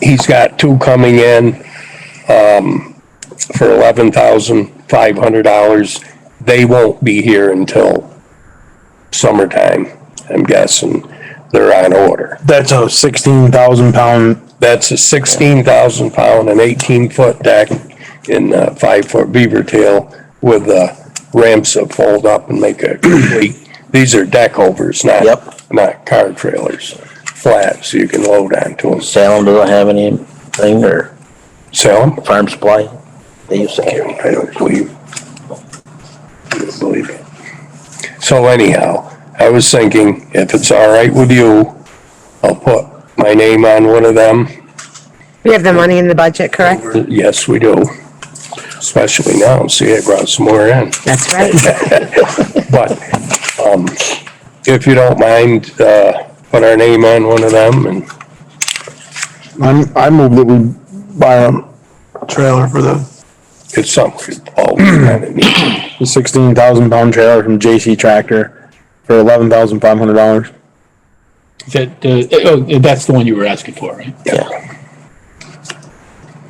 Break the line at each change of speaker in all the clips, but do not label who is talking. he's got two coming in, um, for eleven thousand five hundred dollars. They won't be here until summertime, I'm guessing. They're on order.
That's a sixteen thousand pound,
That's a sixteen thousand pound and eighteen foot deck in uh five foot beaver tail with uh ramps that fold up and make a complete, these are deck overs, not,
Yep.
not car trailers. Flat, so you can load onto them.
Salem doesn't have anything or
Sell them?
farm supply. They used to carry.
I don't believe. I don't believe it. So anyhow, I was thinking, if it's all right with you, I'll put my name on one of them.
We have the money in the budget, correct?
Yes, we do. Especially now, see, it brought some more in.
That's right.
But, um, if you don't mind, uh, put our name on one of them and
I'm, I moved that we buy a trailer for the,
it's something we all kind of need.
the sixteen thousand pound trailer from JC Tractor for eleven thousand five hundred dollars.
That, uh, oh, that's the one you were asking for, right?
Yeah.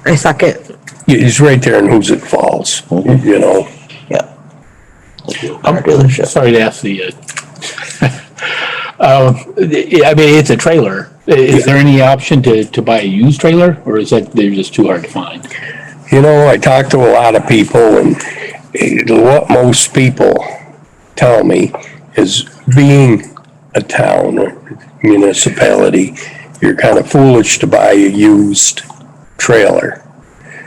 I suck it.
He's right there in Hoosick Falls, you know,
Yeah.
Um,
Car dealership.
Sorry to ask the, uh, um, yeah, I mean, it's a trailer. I- Is there any option to, to buy a used trailer or is that, they're just too hard to find?
You know, I talk to a lot of people and it- what most people tell me is being a town or municipality, you're kind of foolish to buy a used trailer.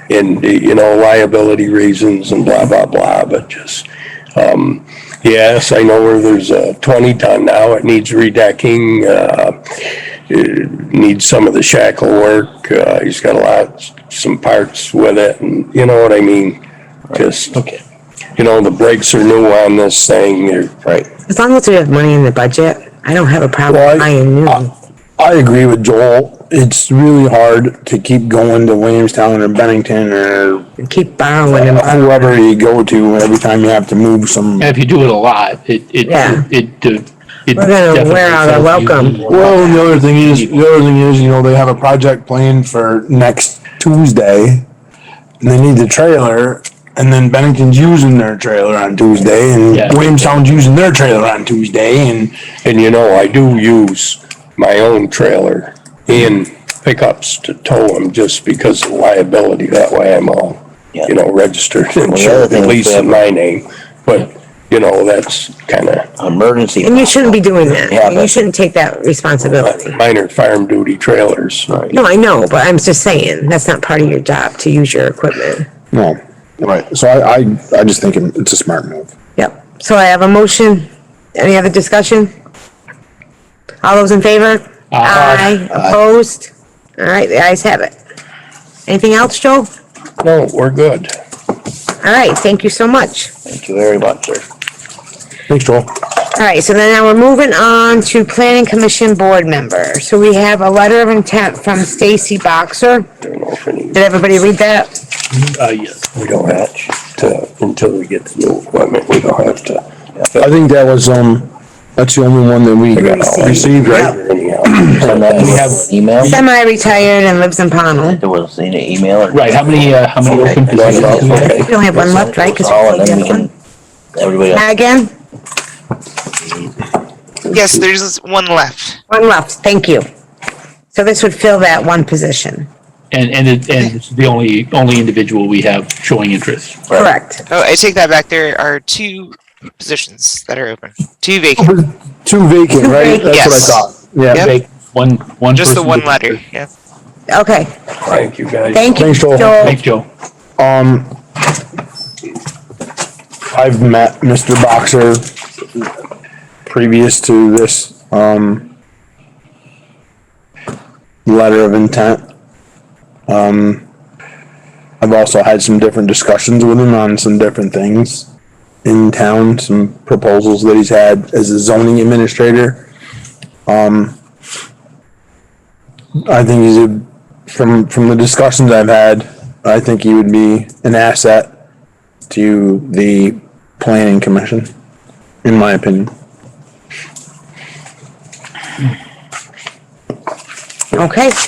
And, you know, liability reasons and blah, blah, blah, but just, um, yes, I know where there's a twenty ton now, it needs redecking, uh, needs uh, some of the shackle work. Uh, he's got a lot, some parts with it and you know what I mean? Just,
Okay.
you know, the brakes are new on this thing. They're-
Right.
As long as we have money in the budget, I don't have a problem
Well, I-
buying new.
I agree with Joel. It's really hard to keep going to Williamstown or Bennington or
and Keep borrowing them.
whoever you go to every time you have to move some.
And if you do it a lot, it, it,
Yeah.
it, uh, it.
We're gonna
definitely
wear out our
sells used
welcome.
more.
Well, and the other thing is, the other thing is, you know, they have a project planned for next Tuesday. And they need the trailer, and then Bennington's using their trailer on Tuesday, and
Yeah.
Williamstown's using their trailer on Tuesday, and
And you know, I do use my own trailer in pickups to tow them just because of liability. That way I'm all,
Yeah.
you know, registered and
other
insured,
thing
at
is
least
we
in my name. But, you know, that's kind of
Emergency.
And you shouldn't be doing that.
Yeah,
You
but-
shouldn't take that responsibility.
minor farm duty trailers.
Right.
No, I know, but I'm just saying, that's not part of your job to use your equipment.
No, right, so I, I, I just think it's a smart move.
Yep. So I have a motion. Any other discussion? All those in favor?
Aye.
Opposed? All right, the ayes have it. Anything else, Joe?
No, we're good.
All right, thank you so much.
Thank you very much, sir.
Thanks, Joel.
All right, so then now we're moving on to planning commission board member. So we have a letter of intent from Stacy Boxer.
Don't know if any-
Did everybody read that?
Uh, yes.
We don't have to, until we get the new equipment, we don't have to.
I think that was, um, that's the only one that we received, right?
Anyhow,
Send that as an email.
Semi-retired and lives in Pownell.
There was an email. or-
Right, how many, uh, how many open
Okay.
positions?
Okay.
We only have one left, right? Because we
All, and
filled
then
the
we
other one.
can, everybody else.
Again,
Yes, there's one left.
one left, thank you. So this would fill that one position,
And, and, it- and it's the only, only individual we have showing interest.
Right.
correct?
Oh, I take that back. There are two positions that are open, two vacant.
Oh, Two vacant, right? That's what I
Yes.
thought, yeah.
Yep.
Take One, one.
Just the
person
one
to-
letter. Yeah.
Okay,
Thank you guys.
thank you,
Thanks, Joel.
Joel.
Thanks, Joe.
Um, I've met Mr. Boxer previous to this, um, letter of intent. Um, I've also had some different discussions with him on some different things in town, some proposals that he's had as a zoning administrator. Um, I think he's a from from the discussions I've had, I think he would be an asset to the planning commission, in my opinion.
Okay,